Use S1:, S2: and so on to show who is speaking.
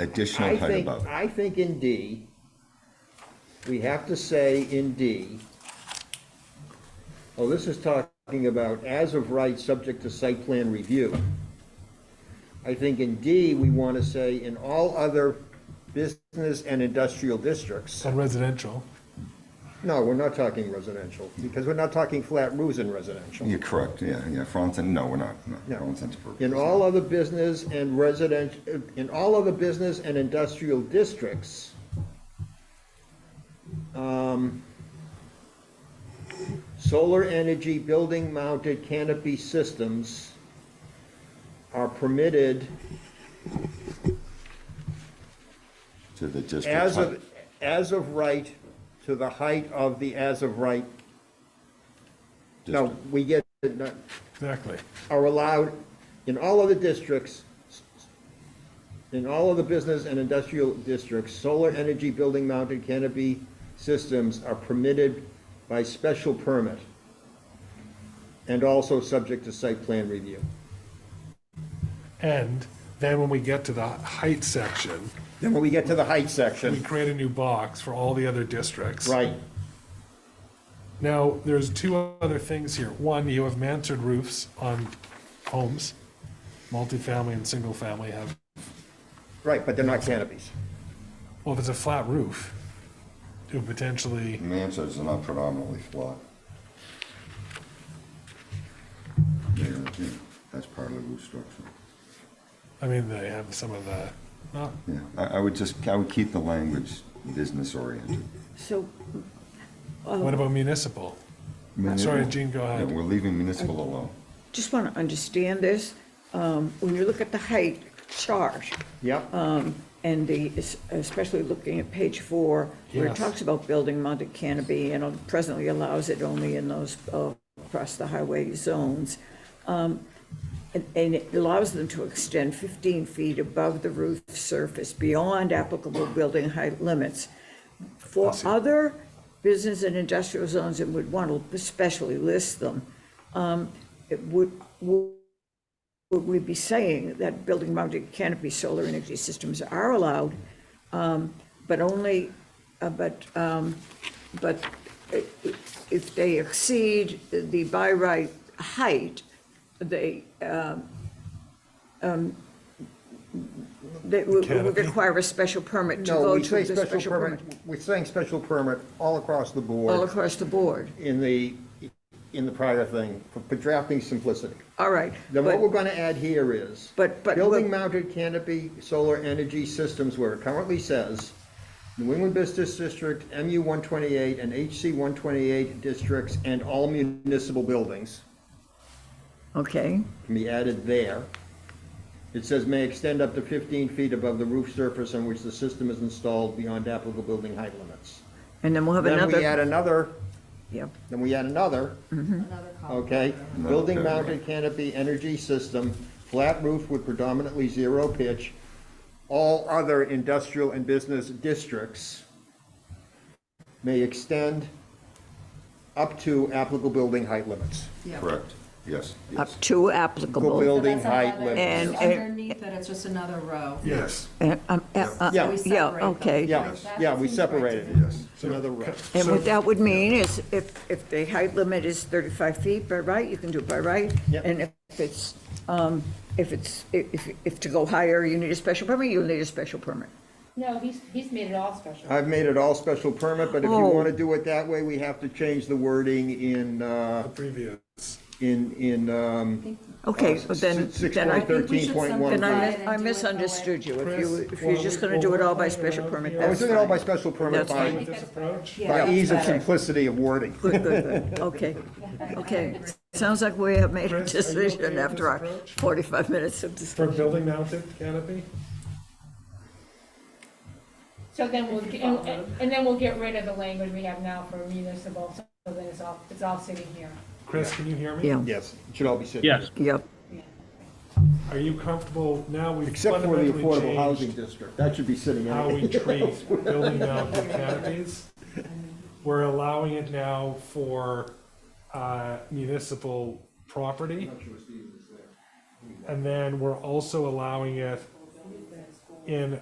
S1: additional
S2: I
S1: height
S2: think,
S1: above it.
S2: I think in D, we have to say in D, oh, this is talking about as of right, subject to site plan review. I think in D, we want to say in all other business and industrial districts.
S3: and residential.
S2: No, we're not talking residential, because we're not talking flat roofs in residential.
S1: You're correct, yeah, yeah, for all intents, no, we're not, no,
S2: No.
S1: for all intents and purposes.
S2: In all other business and resident, in all other business and industrial districts, um, solar energy building mounted canopy systems are permitted
S1: To the district
S2: as
S1: height.
S2: of, as of right to the height of the as of right. No,
S1: district.
S2: we get, it, not-
S3: Exactly.
S2: are allowed in all other districts, in all of the business and industrial districts, solar energy building mounted canopy systems are permitted by special permit and also subject to site plan review.
S3: And then when we get to the height section,
S2: Then when we get to the height
S3: we
S2: section,
S3: create a new box for all the other districts.
S2: right,
S3: Now, there's two other things here. One, you have mansard roofs on homes. Multifamily and single family have,
S2: right, but they're not canopies.
S3: well, if it's a flat roof, it would potentially,
S1: Mansards are not predominantly flat. Yeah, yeah, that's part of the roof structure.
S3: I mean, they have some of the, not
S1: Yeah, I, I would just, I would keep the language business oriented.
S4: So,
S3: What about municipal? Sorry, Gene, go
S1: Yeah,
S3: ahead.
S1: we're leaving municipal alone.
S4: just want to understand this. Um, When you look at the height chart, Uh,
S2: Yep,
S4: and the, especially looking at page four, where it
S3: Yes.
S4: talks about building mounted canopy, and presently allows it only in those uh, across the highway zones. Um, And and it allows them to extend 15 feet above the roof surface beyond applicable building height limits. For other business and industrial zones, it would want to especially list them. um, It would, would we be saying that building mounted canopy solar energy systems are allowed, um, but only, uh, but, um, but i- i- if they exceed the by right height, they, um, That would would
S3: Canopy?
S4: require a special permit to
S2: no,
S4: go
S2: we
S4: to
S2: say
S4: the
S2: special permit, we're saying special permit all across the
S4: all
S2: board
S4: across the board.
S2: in the, in the prior thing, for- for drafting simplicity.
S4: All right.
S2: Then what
S4: but-
S2: we're gonna add here is.
S4: But- but-
S2: Building mounted canopy solar energy systems where it currently says, New England Business District, MU one twenty-eight and HC one twenty-eight districts and all municipal buildings
S4: Okay,
S2: can be added there. It says may extend up to fifteen feet above the roof surface on which the system is installed beyond applicable building height limits.
S4: and then we'll have
S2: Then we add
S4: another, Mm-hmm.
S2: another,
S4: yeah,
S2: then we add another,
S5: Another column.
S2: Okay,
S1: No,
S2: building
S1: okay,
S2: mounted canopy energy system, flat roof with predominantly zero pitch, all other industrial and business districts may extend up to applicable building height limits.
S5: Yeah.
S1: Correct, yes,
S2: Uh,
S4: up
S1: yes.
S4: to
S2: Applicable
S4: applicable.
S2: building
S5: So that's
S2: height
S5: another-
S2: limits.
S4: And-
S5: Underneath that, it's just another row.
S3: Yes.
S4: And, um, uh, uh,
S2: Yeah.
S4: Yeah,
S5: We separate them.
S4: okay.
S2: Yeah,
S5: That
S2: yeah, we
S5: seems right to
S2: separated it.
S5: me.
S1: Yes.
S2: It's another row.
S4: And what that would mean is if, if the height limit is 35 feet by right, you can do it by right.
S2: Yep.
S4: And if it's, um, if it's, if, if to go higher, you need a special permit, you'll need a special permit.
S6: No, he's, he's made it all special.
S2: I've made it all special permit, but if you
S4: Oh.
S2: want to do it that way, we have to change the wording in, uh,
S3: Previous.
S2: in, in, um.
S4: Okay, so then,
S2: Six
S4: then I
S2: point
S5: think we should
S2: thirteen point one.
S5: simplify
S4: Then I,
S5: Right,
S4: mis- I
S5: and do it that way.
S4: misunderstood you. If you,
S3: Chris,
S4: if
S3: while
S4: you're
S3: we-
S4: just gonna
S3: while
S4: do it
S3: we're
S4: all by
S3: playing
S4: special
S3: around
S4: permit,
S2: I
S3: here-
S4: that's
S2: was
S4: fine.
S2: doing it all by special permit
S4: That's fine.
S2: by,
S3: With this approach?
S5: Yeah,
S2: by
S5: that's
S2: ease of
S5: better.
S2: simplicity of wording.
S4: Good, good, good. Okay, okay. Sounds like we have made a
S3: Chris, are you okay
S4: decision
S3: with
S4: after our
S3: this approach?
S4: 45 minutes of
S3: For
S4: discussion.
S3: building mounted canopy?
S6: So then we'll, get- and, and then we'll get rid of the language we have now for municipal, so then it's all, it's all sitting here.
S3: Chris, can you hear me?
S4: Yeah,
S2: Yes, it should all be city.
S7: Yes,
S4: yep.
S3: Are you comfortable now we've
S2: Except for the affordable
S3: fundamentally
S2: housing
S3: changed
S2: district, that should be city
S3: how
S2: anyway.
S3: we treat building mounted canopies? We're allowing it now for uh, municipal property. And then we're also allowing it in